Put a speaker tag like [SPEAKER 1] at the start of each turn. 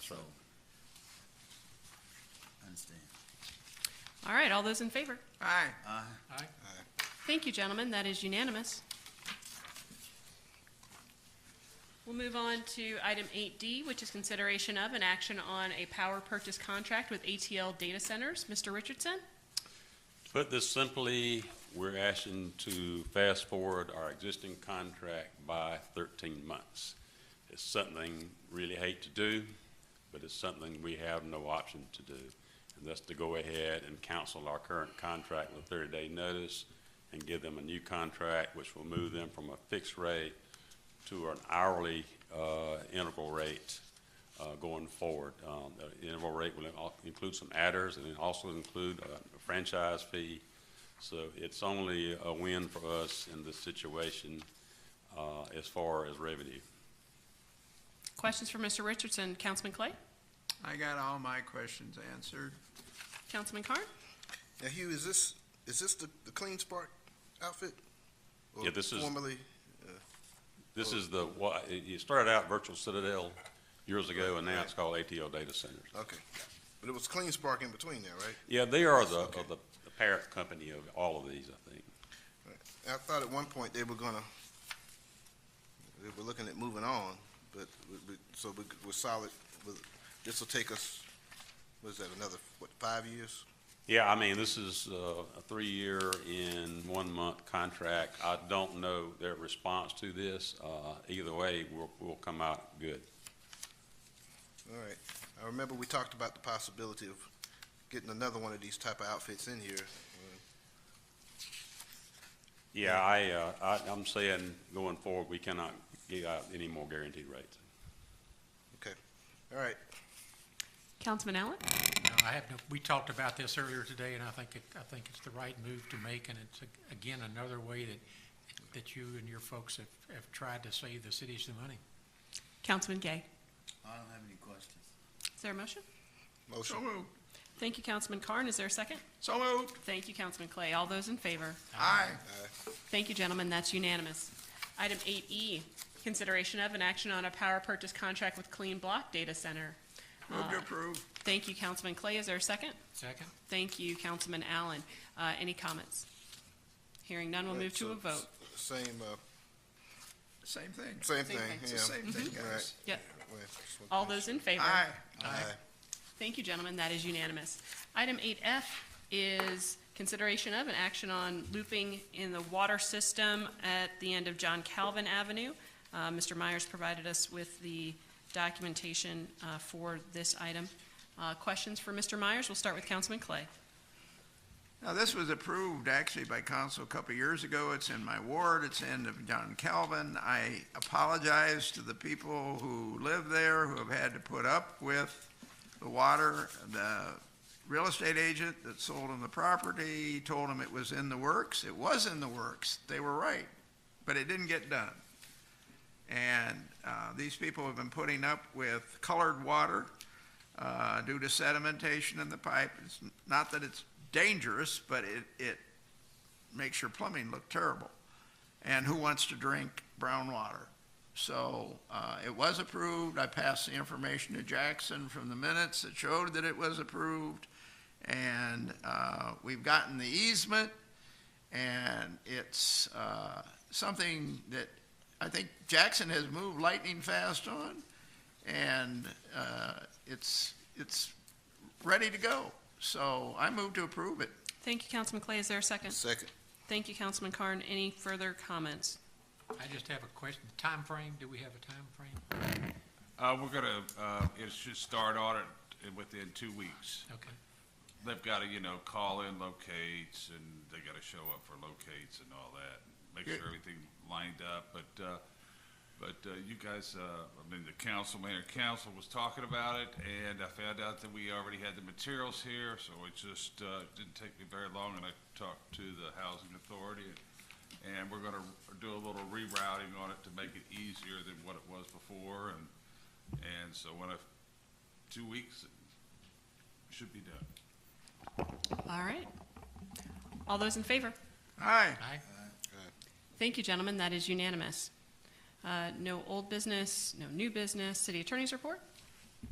[SPEAKER 1] so. Understand.
[SPEAKER 2] All right, all those in favor?
[SPEAKER 3] Aye.
[SPEAKER 1] Uh,
[SPEAKER 4] Aye.
[SPEAKER 2] Thank you, gentlemen, that is unanimous. We'll move on to item 8D, which is consideration of an action on a power purchase contract with ATL Data Centers. Mr. Richardson?
[SPEAKER 5] To Put this simply, we're asking to fast forward our existing contract by thirteen months. It's something really hate to do, but it's something we have no option to do. And that's to go ahead and cancel our current contract with thirty-day notice and give them a new contract, which will move them from a fixed rate to an hourly, uh, integral rate, uh, going forward. Um, The interval rate will in- include some adders and it also include a franchise fee. So it's only a win for us in this situation uh, as far as revenue.
[SPEAKER 2] Questions for Mr. Richardson? Councilman Clay?
[SPEAKER 3] I got all my questions answered.
[SPEAKER 2] Councilman Carn?
[SPEAKER 6] Now, Hugh, is this, is this the, the Clean Spark outfit? Or
[SPEAKER 5] Yeah, this is-
[SPEAKER 6] Formerly,
[SPEAKER 5] This is the, wha- it it started out Virtual Citadel years ago and now it's called ATL Data Centers.
[SPEAKER 6] okay. But it was Clean Spark in between there, right?
[SPEAKER 5] Yeah, they are the, are the the parent company of all of these, I think.
[SPEAKER 6] And I thought at one point they were gonna, they were looking at moving on, but, we- we- so we- we're solid with, this'll take us, what is that, another, what, five years?
[SPEAKER 5] Yeah, I mean, this is uh, a three-year in one-month contract. I don't know their response to this. Uh, Either way, we'll, we'll come out good.
[SPEAKER 6] All right. I remember we talked about the possibility of getting another one of these type of outfits in here. Uh,
[SPEAKER 5] Yeah, I, uh, I, I'm saying going forward, we cannot give out any more guaranteed rates.
[SPEAKER 6] All right,
[SPEAKER 2] Councilman Allen?
[SPEAKER 4] No, I have no, we talked about this earlier today, and I think, it- I think it's the right move to make, and it's, a- again, another way that, that you and your folks have, have tried to save the city some money.
[SPEAKER 2] Councilman Gay?
[SPEAKER 1] I don't have any questions.
[SPEAKER 2] Is there a motion?
[SPEAKER 6] motion.
[SPEAKER 3] So moved.
[SPEAKER 2] Thank you, Councilman Carn. Is there a second?
[SPEAKER 3] So moved.
[SPEAKER 2] Thank you, Councilman Clay. All those in favor?
[SPEAKER 3] Aye.
[SPEAKER 2] Thank you, gentlemen, that's unanimous. Item 8E, consideration of an action on a power purchase contract with Clean Block Data Center.
[SPEAKER 3] Move to approve.
[SPEAKER 2] Thank you, Councilman Clay. Is there a second?
[SPEAKER 4] Second?
[SPEAKER 2] Thank you, Councilman Allen. Uh, Any comments? Hearing none, we'll move to a vote.
[SPEAKER 6] Same, uh,
[SPEAKER 3] Same thing.
[SPEAKER 6] same thing, yeah.
[SPEAKER 3] It's the same thing, guys.
[SPEAKER 2] Yep.
[SPEAKER 6] Well, just one
[SPEAKER 2] All
[SPEAKER 6] thing.
[SPEAKER 2] those in favor?
[SPEAKER 3] Aye.
[SPEAKER 6] Aye.
[SPEAKER 2] Thank you, gentlemen, that is unanimous. Item 8F is consideration of an action on looping in the water system at the end of John Calvin Avenue. Uh, Mr. Myers provided us with the documentation uh, for this item. Uh, Questions for Mr. Myers? We'll start with Councilman Clay.
[SPEAKER 3] Now, this was approved actually by council a couple of years ago. It's in my ward. It's in of John Calvin. I apologize to the people who live there who have had to put up with the water. The real estate agent that sold them the property told them it was in the works. It was in the works. They were right, but it didn't get done. And uh, these people have been putting up with colored water uh, due to sedimentation in the pipe. It's n- not that it's dangerous, but it, it makes your plumbing look terrible. And who wants to drink brown water? So uh, it was approved. I passed the information to Jackson from the minutes that showed that it was approved. And uh, we've gotten the easement, and it's uh, something that I think Jackson has moved lightning fast on, and uh, it's, it's ready to go. So I move to approve it.
[SPEAKER 2] Thank you, Councilman Clay. Is there a second?
[SPEAKER 6] Second,
[SPEAKER 2] Thank you, Councilman Carn. Any further comments?
[SPEAKER 4] I just have a question, Time frame? do we have a time frame?
[SPEAKER 7] Uh, we're gonna, uh, it should start audit in- within two weeks.
[SPEAKER 4] Okay,
[SPEAKER 7] They've gotta, you know, call in locates and they gotta show up for locates and all that. Make
[SPEAKER 3] Good.
[SPEAKER 7] sure everything lined up, but, uh, but, uh, you guys, uh, I mean, the council, mayor and council was talking about it and I found out that we already had the materials here, so it just, uh, didn't take me very long and I talked to the housing authority and we're gonna do a little rerouting on it to make it easier than what it was before and and so when I, two weeks, it should be done.
[SPEAKER 2] All right. All those in favor?
[SPEAKER 3] Aye.
[SPEAKER 4] aye?
[SPEAKER 2] Thank you, gentlemen. That is unanimous. Uh, No old business, no new business. City Attorney's report?